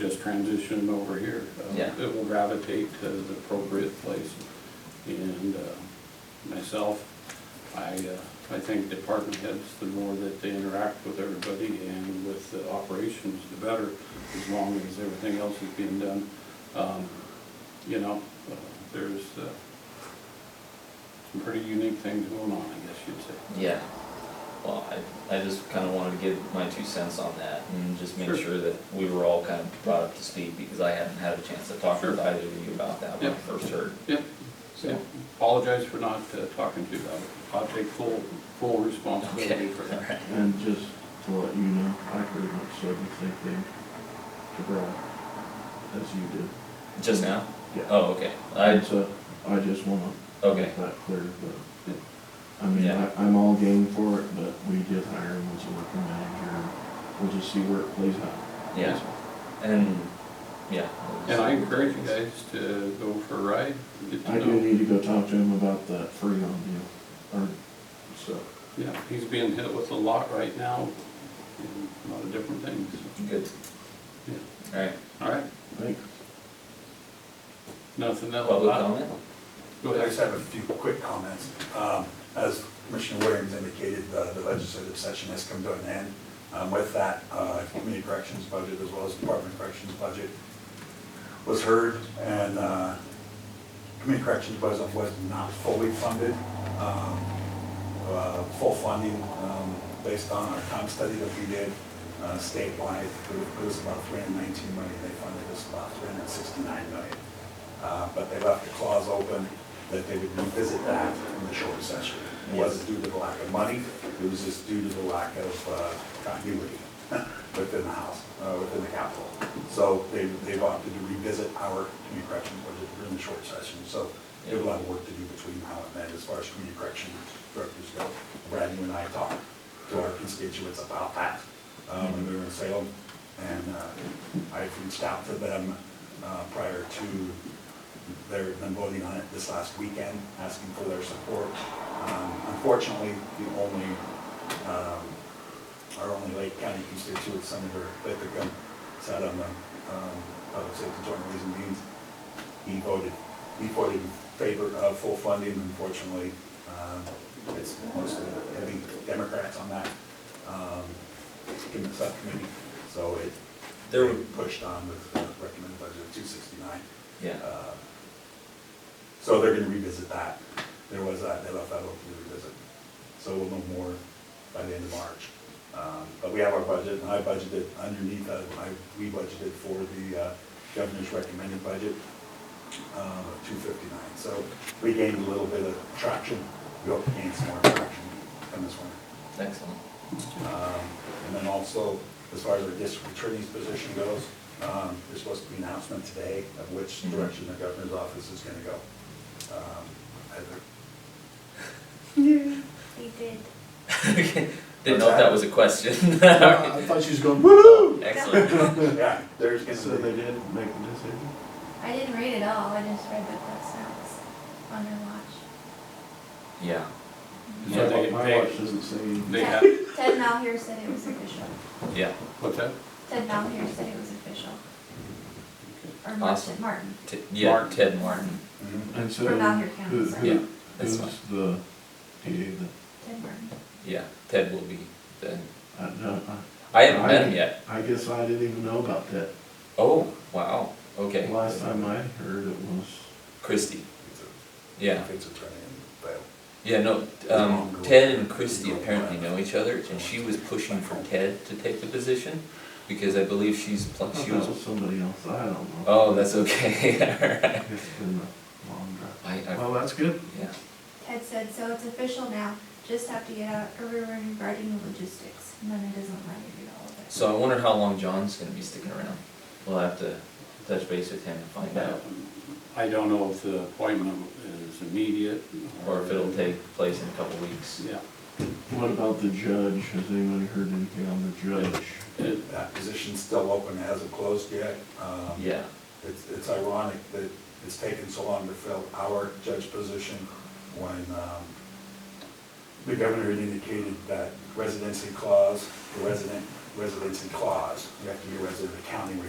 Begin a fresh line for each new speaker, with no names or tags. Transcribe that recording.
has transitioned over here. Uh,
Yeah.
It will gravitate to the appropriate place. And uh, myself, I, uh, I think department heads, the more that they interact with everybody and with the operations, the better, as long as everything else is being done. Um, You know, uh, there's uh, some pretty unique things going on, I guess you'd say.
Yeah, well, I, I just kinda wanted to give my two cents on that and just make
Sure.
sure that we were all kind of brought up to speed because I hadn't had a chance to talk
Sure.
with either of you about that when I
Yeah.
first heard.
Yep,
So-
yep. Apologize for not uh, talking to you about it. I'll take full, full responsibility
Okay,
for
all
that.
right.
And just to let you know, I pretty much said the same thing to Brad as you did.
Just now?
Yeah.
Oh, okay, I,
So I just wanna
okay,
make that clear, but, I mean,
Yeah.
I, I'm all game for it, but we did hire him as a working manager. We'll just see where it plays out.
yeah, and, yeah.
And I encourage you guys to go for a ride, get
I
to
do
know.
need to go talk to him about that Freon deal, or, so,
Yeah, he's being hit with a lot right now, and a lot of different things.
Good,
Yeah.
alright,
All right,
thanks.
nothing else?
public comment?
Go
I just
ahead.
have a few quick comments. Um, As Commissioner Williams indicated, uh, the legislative session has come to an end. Um, With that, uh, Community Corrections budget as well as Department of Corrections budget was heard, and uh, Community Corrections budget was not fully funded. Um, uh, Full funding um, based on our comp study that we did uh, statewide, it was about 319 million, they funded us about 369 million. Uh, but they left the clause open that they would revisit that in the short session. It wasn't due to the lack of money, it was just due to the lack of uh, continuity within the House, uh, within the Capitol. So they, they've opted to revisit our community corrections budget during the short session. So we have a lot of work to do between now and then as far as community correction directors go. Brad, you and I talked to our constituents about that um, when we were in Salem. And uh, I reached out to them uh, prior to their, them voting on it this last weekend, asking for their support. Um, Unfortunately, the only, um, our only Lake County constituent, Senator Lipikum, sat on the um, Public Safety Joint Reason Meetings. He voted, he voted in favor of full funding, unfortunately. um, It's mostly heavy Democrats on that um, in the subcommittee, so it, they
There
were
were-
pushed on with the recommended budget of two sixty-nine.
Yeah,
Uh,
So they're gonna revisit that. There was that, they left that open to revisit. So we'll know more by the end of March. Um, But we have our budget, and I budgeted underneath that, I, we budgeted for the uh, governor's recommended budget um, of two fifty-nine. So we gained a little bit of traction. We hope to gain some more traction from this one.
excellent,
Um, And then also, as far as our district attorney's position goes, um, there's supposed to be an announcement today of which
Mm-hmm.
direction the governor's office is gonna go. Um, Heather,
We did.
okay, didn't know if
What's that?
that was a question.
I thought she was going, woo
Excellent,
Yeah, there's
So
gonna be,
they did make the decision?
I didn't read it all. I just read the clip notes on her watch.
yeah,
So they,
My watch
they,
doesn't say. anything.
they have,
Ted, Ted Malhier said it was official.
yeah,
what's that?
Ted Malhier said it was official. Or
Awesome.
Martin. Martin.
T- yeah,
Martin.
Ted Martin,
Mhm.
And so,
From Malheur County,
who,
sorry.
Yeah,
who,
that's
who's the DA that,
Ted Martin.
yeah, Ted will be the
I don't, I.
I haven't met him yet.
I guess I didn't even know about that.
Oh, wow, okay.
Last time I heard it was,
Christie,
It's a-
yeah.
It's a turn in, but
Yeah, no, um, Ted and Christie apparently know each other, and she was pushing for Ted to take the position, because I believe she's,
I
pl-
thought
she
that
was,
was somebody else, I don't know.
oh, that's okay, alright.
It's been a long drive.
I, I,
Well, that's good.
yeah,
Ted said, so it's official now. Just have to get out a rumoring regarding the logistics. And then it doesn't let you read all of it.
so I wonder how long John's gonna be sticking around. We'll have to touch base with him and find out,
Um, I don't know if the appointment is immediate.
or if it'll take place in a couple weeks.
Yeah,
What about the judge? Has anybody heard anything on the judge?
It-
that position's still open, it hasn't closed yet. Um,
Yeah,
It's, it's ironic that it's taken so long to fill our judge position when um, the governor had indicated that residency clause, the resident, residency clause, you have to be a resident of the county where